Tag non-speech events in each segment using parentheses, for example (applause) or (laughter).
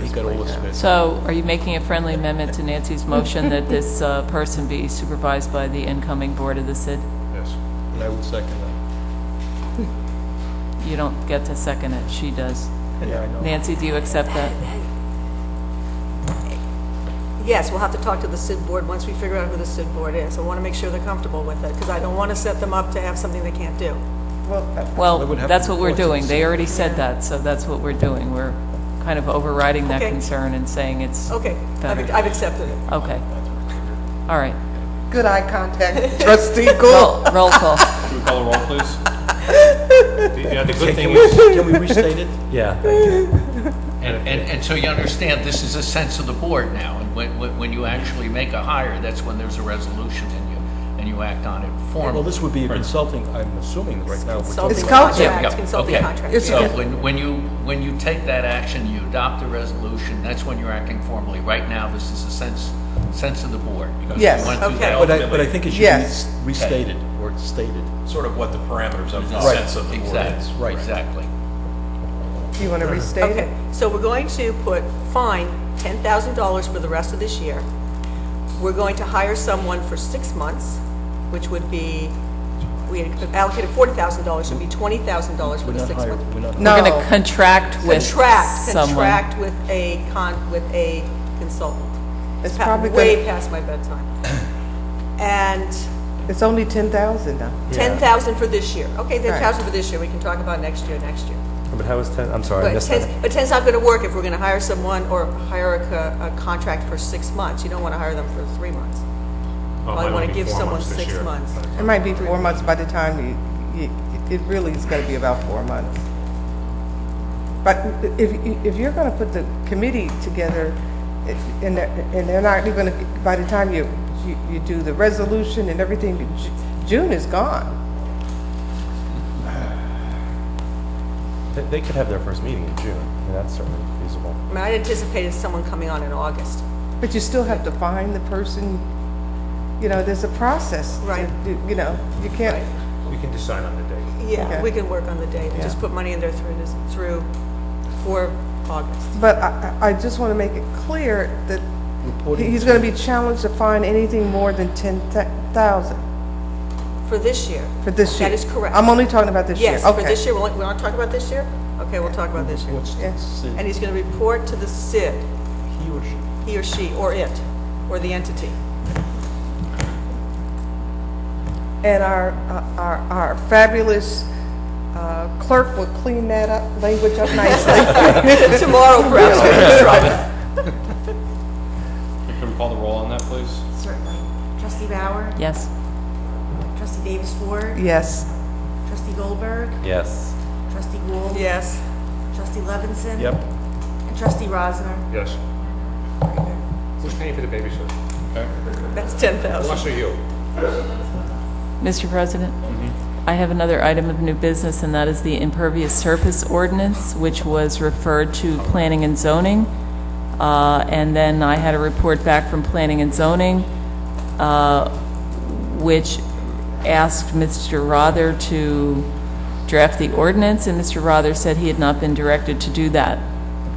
He's got all the space. So are you making a friendly amendment to Nancy's motion that this uh, person be supervised by the incoming board of the SID? Yes. And I would second that. You don't get to second it, she does. Yeah, I know. Nancy, do you accept that? Yes, we'll have to talk to the SID board once we figure out who the SID board is. I want to make sure they're comfortable with it, because I don't want to set them up to have something they can't do. Well, They would have that's to what we're report to the doing. They already said that, so that's what we're doing. We're kind of overriding that Okay. concern and saying it's, Okay, I've Better. I've accepted it. okay. All right. Good eye (laughs) contact, trustee Gould. Roll roll call. Should we call a roll, please? The- Yeah, the good Can thing we, is, can we restate (laughs) it? And, and, and so you understand, this is a sense of the board now, and when, when, when you actually make a hire, that's when there's a resolution and you, and you act on it Well, formally. this would be a consulting, I'm assuming right now. we're talking Consulting about- culture. Yeah, contract, consulting okay. contract. It's- So when, when you, when you take that action, you adopt a resolution, that's when you're acting formally. Right now, this is a sense, sense of the board. because we Yes. went through Okay. that But I, but I ultimately, think it should Yes. be restated or stated. sort of what the parameters of the Right. sense of the board is. Exactly, Right. exactly. You want to restate Okay, it? so we're going to put fine $10,000 for the rest of this year. We're going to hire someone for six months, which would be, we had allocated $40,000, so it'd be $20,000 for We're the not six months. hiring, we're not. We're going No. to contract with Contract, someone. contract with a con, with a consultant. It's pa- probably Way gonna- past my (coughs) bedtime. And It's only 10,000 now. 10,000 for this year. Okay, Right. 10,000 for this year, we can talk about next year, next year. But how is 10, I'm sorry, I But missed 10, that. but 10's not going to work if we're going to hire someone or hire a, co- a contract for six months. You don't want to hire them for three months. Probably want to give someone six months. It might be four months by the time you, you, it really is going to be about four months. But if, if you're going to put the committee together, it- and, they're- and they're not even, gonna- by the time you, you- you do the resolution and everything, Ju- June is gone. They- They could have their first meeting in June, and that's certainly feasible. I mean, I anticipated someone coming on in August. But you still have to find the person, you know, there's a process. to Right. do- You know, you can't, We can decide on the date. Yeah, Okay. we can work on the date. Just Yeah. put money in there through this, through, for August. But I, I I just want to make it clear that Reporting he's going to be challenged to find anything more than 10,000 For this year. for this year. That is correct. I'm only talking about this year. Yes, for Okay. this year. We're not talking about this year? Okay, we'll talk about this year. What's Yeah. the And city, he's going to report to the SID, he or she? he or she, or it, or (laughs) the entity. And our, uh, our our fabulous uh, clerk will clean that up, language up (laughs) nicely. Tomorrow, perhaps, we can try it. Can we call the roll on that, please? Certainly. Trustee Bauer? Yes. Trustee Davis Ford? Yes. Trustee Goldberg? Yes. Trustee Gould? Yes. Trustee Levinson? Yep. And Trustee Rosner? Yes. Who's paying for the babysitter? That's 10,000. Us or you? Mr. President, I have another item of new business, and that is the impervious surface ordinance, which was referred to planning and zoning. Uh, And then I had a report back from planning and zoning, uh, which asked Mr. Rother to draft the ordinance, and Mr. Rother said he had not been directed to do that.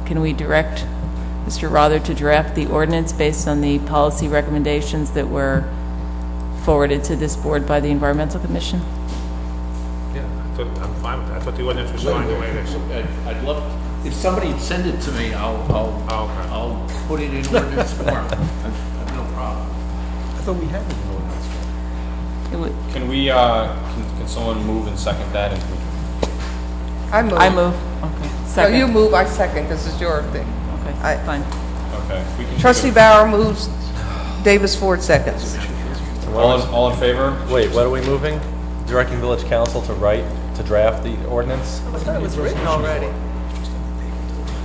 Can we direct Mr. Rother to draft the ordinance based on the policy recommendations that were forwarded to this board by the Environmental Commission? Yeah, I thought, I'm fine with that. I thought the ordinance was fine the way it is. uh, I'd I'd love, if somebody'd send it to me, I'll, I'll, Oh, okay. I'll put it in ordinance form. (laughs) I've no problem. I thought we had it in ordinance. It would- Can we, uh, can can someone move and second that? and we- I move. I move. Okay. No, you Second. move, I second, because it's your thing. Okay, I- fine. Okay. we can- Trustee Bauer moves, Davis Ford seconds. All, in- all in favor? Wait, what are we moving? Directing village council to write, to draft the ordinance? I thought it was written already.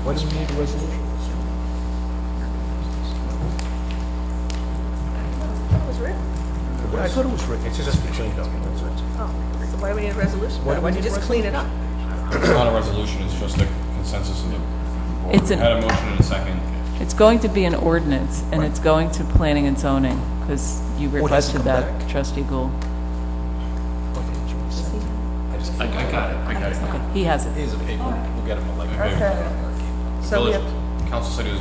Why do we need a resolution? It was written. I thought it was written. It's just a between documents. Oh, so why do we need a resolution? Why Why do we don't you need a just clean it up? It's not a resolution, it's just a consensus in the board. It's We an- Had a motion and a second. It's going to be an ordinance, and it's going to planning and zoning, because you Board has to requested come that, back. trustee Gould. I, I got it, I got it. He has it. He's a paper, we'll get him a Okay. So we Village have, council said he was